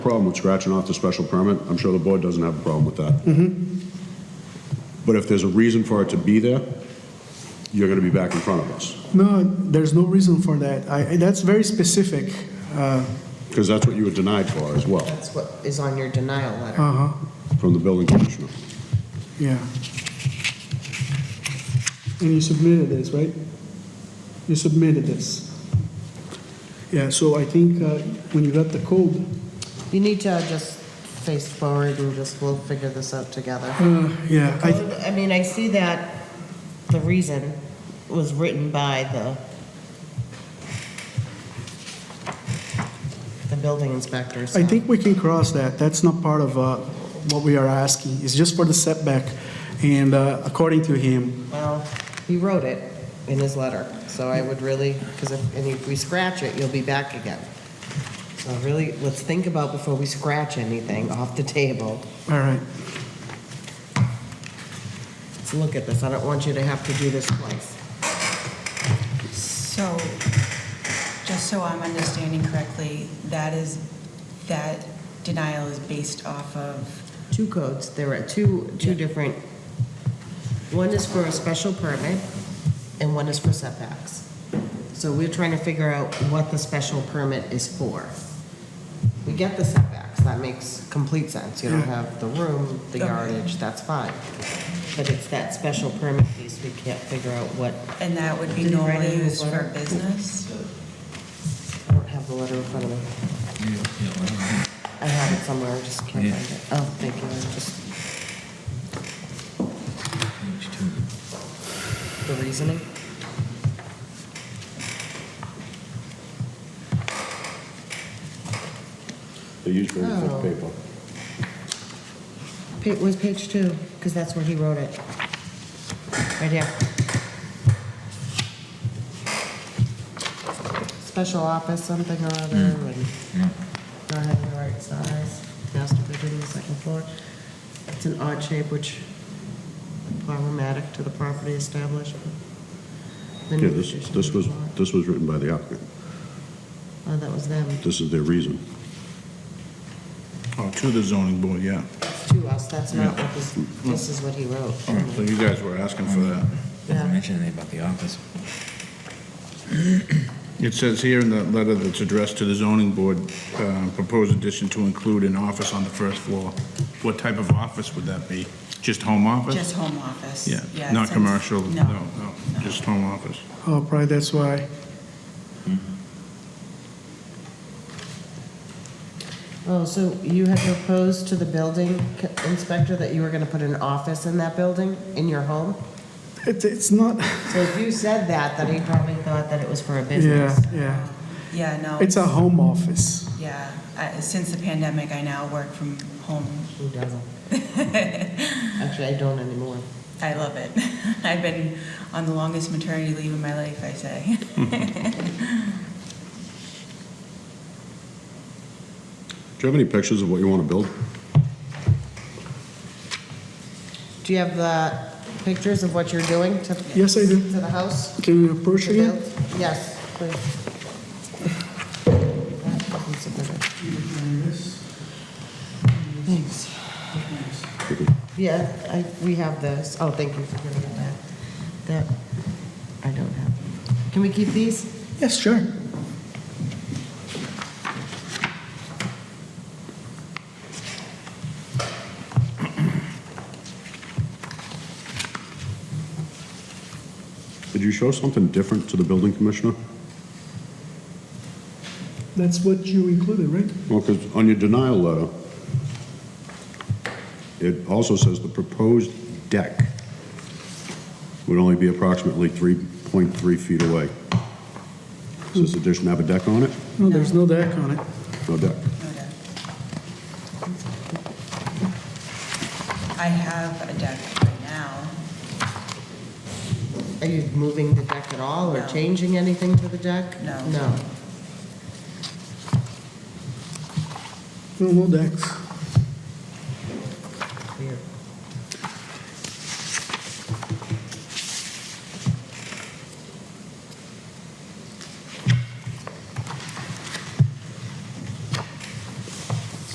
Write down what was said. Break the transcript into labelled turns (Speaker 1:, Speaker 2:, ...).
Speaker 1: problem with scratching off the special permit. I'm sure the board doesn't have a problem with that. But if there's a reason for it to be there, you're going to be back in front of us.
Speaker 2: No, there's no reason for that. I, that's very specific. Uh,
Speaker 1: Because that's what you were denied for as well,
Speaker 3: That's what is on your denial letter.
Speaker 2: uh-huh,
Speaker 1: from the building commissioner.
Speaker 2: yeah. And you submitted this, right? You submitted this. Yeah, so I think uh, when you got the code,
Speaker 3: You need to just face forward and just, we'll figure this out together.
Speaker 2: uh, yeah, I,
Speaker 3: I mean, I see that the reason was written by the, the building inspector, so.
Speaker 2: I think we can cross that. That's not part of uh, what we are asking. It's just for the setback. And uh, according to him,
Speaker 3: Well, he wrote it in his letter, so I would really, because if, and if we scratch it, you'll be back again. So really, let's think about before we scratch anything off the table.
Speaker 2: all right,
Speaker 3: Let's look at this. I don't want you to have to do this twice.
Speaker 4: So, just so I'm understanding correctly, that is, that denial is based off of,
Speaker 3: two codes, there are two, two different, one is for a special permit and one is for setbacks. So we're trying to figure out what the special permit is for. We get the setbacks, that makes complete sense, you don't have the room, the
Speaker 4: Okay.
Speaker 3: yardage, that's fine. But it's that special permit piece, we can't figure out what,
Speaker 4: and that would be
Speaker 3: Did you write it
Speaker 4: normally
Speaker 3: in the
Speaker 4: used for
Speaker 3: letter?
Speaker 4: business?
Speaker 3: I don't have the letter in front of me. I have it somewhere, I just can't
Speaker 5: Yeah.
Speaker 3: find it. Oh, thank you, I just, the reasoning.
Speaker 1: They use very
Speaker 3: thick Oh.
Speaker 1: paper.
Speaker 3: Pa- was page two, because that's where he wrote it. Right here. Special office, something or other,
Speaker 1: Hmm.
Speaker 3: and not having the right size, master bedroom, the second floor. It's an odd shape, which problematic to the property establishment. The
Speaker 1: Yeah,
Speaker 3: new
Speaker 1: this,
Speaker 3: addition
Speaker 1: this was,
Speaker 3: is not-
Speaker 1: this was written by the applicant.
Speaker 3: Oh, that was them,
Speaker 1: This is their reason.
Speaker 5: Oh, to the zoning board, yeah.
Speaker 3: It's to us, that's not what this, this is what he wrote.
Speaker 5: All right, Oh, So you guys were asking for that.
Speaker 3: Yeah.
Speaker 6: Doesn't mention anything about the office.
Speaker 5: It says here in the letter that's addressed to the zoning board, uh, proposed addition to include an office on the first floor. What type of office would that be? Just home office?
Speaker 4: Just home office?
Speaker 5: Yeah,
Speaker 4: it
Speaker 5: not
Speaker 4: says-
Speaker 5: commercial, no,
Speaker 4: No.
Speaker 5: no, just home office.
Speaker 2: oh, probably that's why.
Speaker 3: Oh, so you had proposed to the building c- inspector that you were gonna put an office in that building, in your home?
Speaker 2: It's, it's not,
Speaker 3: So if you said that, then he probably thought that it was for a
Speaker 2: yeah,
Speaker 3: business.
Speaker 2: yeah.
Speaker 4: Yeah, no.
Speaker 2: It's a home office.
Speaker 4: Yeah, I- since the pandemic, I now work from home.
Speaker 3: Who doesn't? Actually, I don't anymore.
Speaker 4: I love it. I've been on the longest maternity leave of my life, I say.
Speaker 1: Do you have any pictures of what you want to build?
Speaker 3: Do you have the pictures of what you're doing to?
Speaker 2: Yes, I do.
Speaker 3: To the house?
Speaker 2: Can you approach
Speaker 3: to
Speaker 2: again?
Speaker 3: build? Yes, please. Thanks. Yeah, I, we have this. Oh, thank you for giving it back. That, I don't have. Can we keep these?
Speaker 2: Yes, sure.
Speaker 1: Did you show something different to the building commissioner?
Speaker 2: That's what you included, right?
Speaker 1: Well, because on your denial letter, it also says the proposed deck would only be approximately 3.3 feet away. Does this addition have a deck on it?
Speaker 2: No, there's no deck on it.
Speaker 1: No deck.
Speaker 4: I have a deck right now.
Speaker 3: Are you moving the deck at all or
Speaker 4: No.
Speaker 3: changing anything to the deck?
Speaker 4: No.
Speaker 3: No.
Speaker 2: No, no decks.